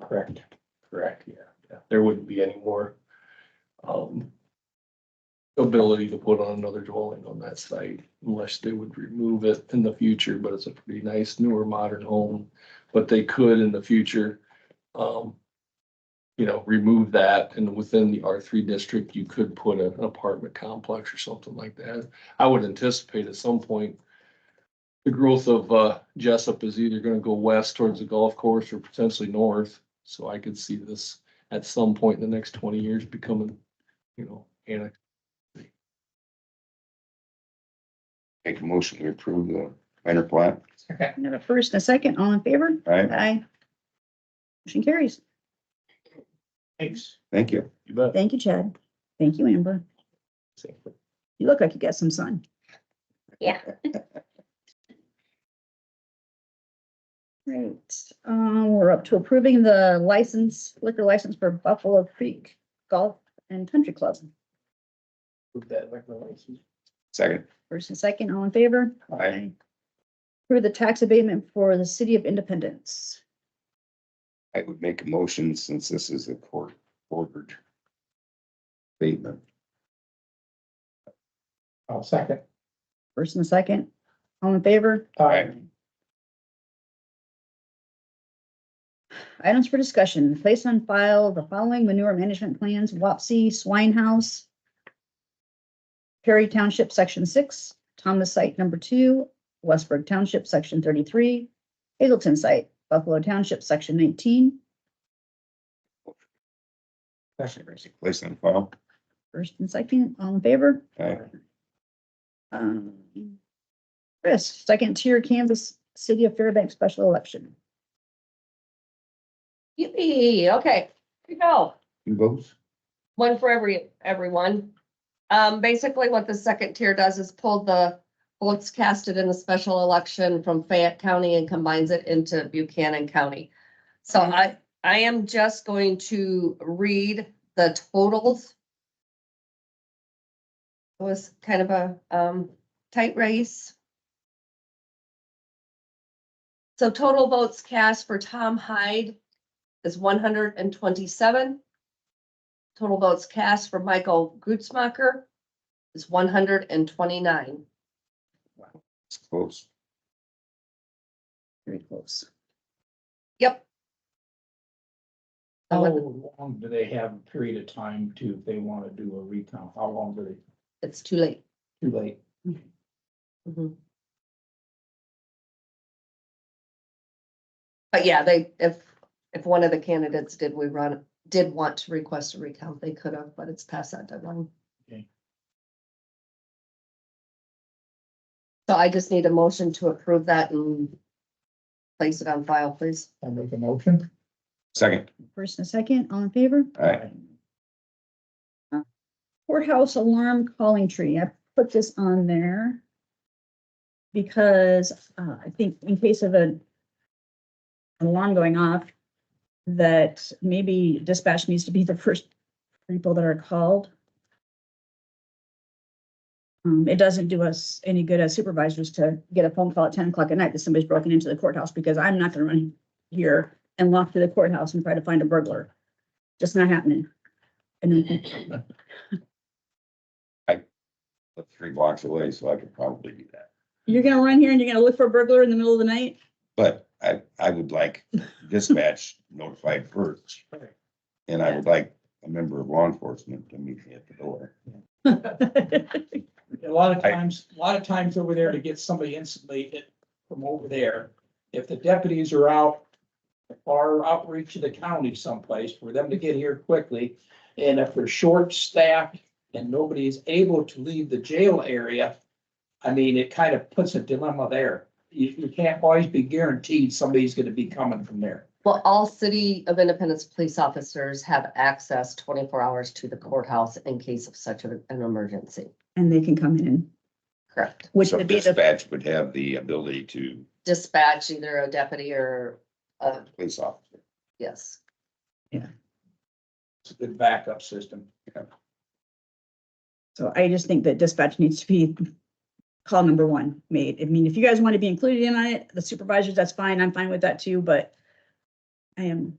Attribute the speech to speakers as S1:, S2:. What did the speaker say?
S1: correct?
S2: Correct, yeah. There wouldn't be any more um ability to put on another dwelling on that site unless they would remove it in the future, but it's a pretty nice newer modern home. But they could in the future, um, you know, remove that and within the R three district, you could put an apartment complex or something like that. I would anticipate at some point the growth of uh Jessup is either gonna go west towards the golf course or potentially north. So I could see this at some point in the next twenty years becoming, you know, annex.
S3: Make a motion to approve the minor plat,
S4: Second.
S5: I got a first and a second, all in favor?
S3: right?
S5: Aye. Motion carries.
S4: Thanks.
S3: Thank you.
S2: You bet.
S5: Thank you, Chad. Thank you, Amber. You look like you got some sun.
S6: Yeah.
S5: Right, um, we're up to approving the license, liquor license for Buffalo Creek Golf and Country Club.
S4: Move that liquor license.
S3: Second,
S5: First and second, all in favor?
S3: Aye.
S5: Approve the tax abatement for the City of Independence.
S3: I would make a motion since this is a court ordered statement.
S4: I'll second.
S5: First and second, all in favor?
S4: Aye.
S5: Items for discussion, place on file the following manure management plans, Wapsie Swine House, Perry Township, Section Six, Thomas Site Number Two, Westburg Township, Section Thirty-three, Hazelton Site, Buffalo Township, Section Nineteen.
S3: Place on file.
S5: First and second, all in favor?
S3: Aye.
S5: Um, Chris, second tier Kansas City of Fairbanks special election.
S6: Yippee, okay, here we go.
S3: You both?
S6: one for every, everyone. Um, basically what the second tier does is pull the votes casted in the special election from Fayette County and combines it into Buchanan County. So I, I am just going to read the totals. It was kind of a, um, tight race. So total votes cast for Tom Hyde is one hundred and twenty-seven. Total votes cast for Michael Gutzmacher is one hundred and twenty-nine.
S3: It's close.
S5: Very close.
S6: Yep.
S4: How
S2: Oh.
S4: long do they have a period of time to, if they want to do a recount? How long do they,
S6: It's too late.
S4: too late?
S6: Mhm. But yeah, they, if, if one of the candidates did we run, did want to request a recount, they could have, but it's past that deadline.
S4: Okay.
S6: So I just need a motion to approve that and place it on file, please.
S4: I make a motion?
S3: Second,
S5: First and second, all in favor?
S3: aye,
S5: Courthouse alarm calling tree. I put this on there because uh, I think in case of an an alarm going off, that maybe dispatch needs to be the first people that are called. Um, It doesn't do us any good as supervisors to get a phone call at ten o'clock at night that somebody's broken into the courthouse because I'm not gonna run here and walk to the courthouse and try to find a burglar. Just not happening. And then
S3: But three blocks away, so I could probably do that.
S5: You're gonna run here and you're gonna look for a burglar in the middle of the night?
S3: But I, I would like dispatch notified first. And I would like a member of law enforcement to meet me at the door.
S4: A lot of
S3: I-
S4: times, a lot of times over there to get somebody insulated from over there. If the deputies are out, far outreach of the county someplace for them to get here quickly. And if they're short staffed and nobody is able to leave the jail area, I mean, it kind of puts a dilemma there. You, you can't always be guaranteed somebody's gonna be coming from there.
S6: Well, all City of Independence police officers have access twenty-four hours to the courthouse in case of such an an emergency.
S5: And they can come in,
S6: Correct.
S5: which
S3: So
S5: would be the,
S3: dispatch would have the ability to
S6: Dispatch either a deputy or, uh,
S3: police officer.
S6: yes.
S4: It's a good backup system.
S5: so I just think that dispatch needs to be call number one made. I mean, if you guys want to be included in on it, the supervisors, that's fine. I'm fine with that too, but I am